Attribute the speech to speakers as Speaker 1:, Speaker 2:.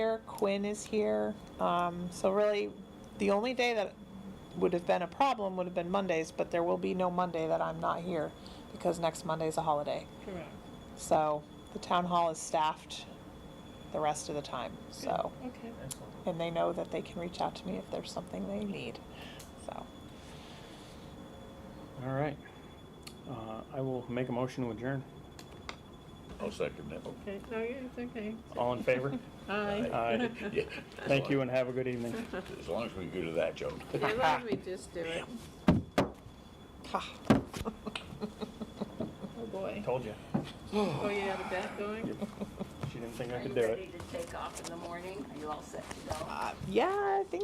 Speaker 1: here, Quinn is here. Um, so really, the only day that would have been a problem would have been Mondays, but there will be no Monday that I'm not here because next Monday is a holiday.
Speaker 2: Correct.
Speaker 1: So the town hall is staffed the rest of the time, so.
Speaker 2: Okay.
Speaker 3: Excellent.
Speaker 1: And they know that they can reach out to me if there's something they need, so.
Speaker 3: All right. Uh, I will make a motion to adjourn.
Speaker 4: I'll second that.
Speaker 2: Okay, no, yeah, it's okay.
Speaker 3: All in favor?
Speaker 2: Aye.
Speaker 3: Aye.
Speaker 4: Yeah.
Speaker 3: Thank you and have a good evening.
Speaker 4: As long as we go to that, Joe.
Speaker 2: Yeah, why don't we just do it?
Speaker 1: Ha.
Speaker 2: Oh, boy.
Speaker 3: Told you.
Speaker 2: Oh, you have a bet going?
Speaker 3: She didn't think I
Speaker 5: Are
Speaker 3: could
Speaker 5: you
Speaker 3: do it.
Speaker 5: ready to take off in the morning? Are you all set to go?
Speaker 1: Uh, Yeah, I think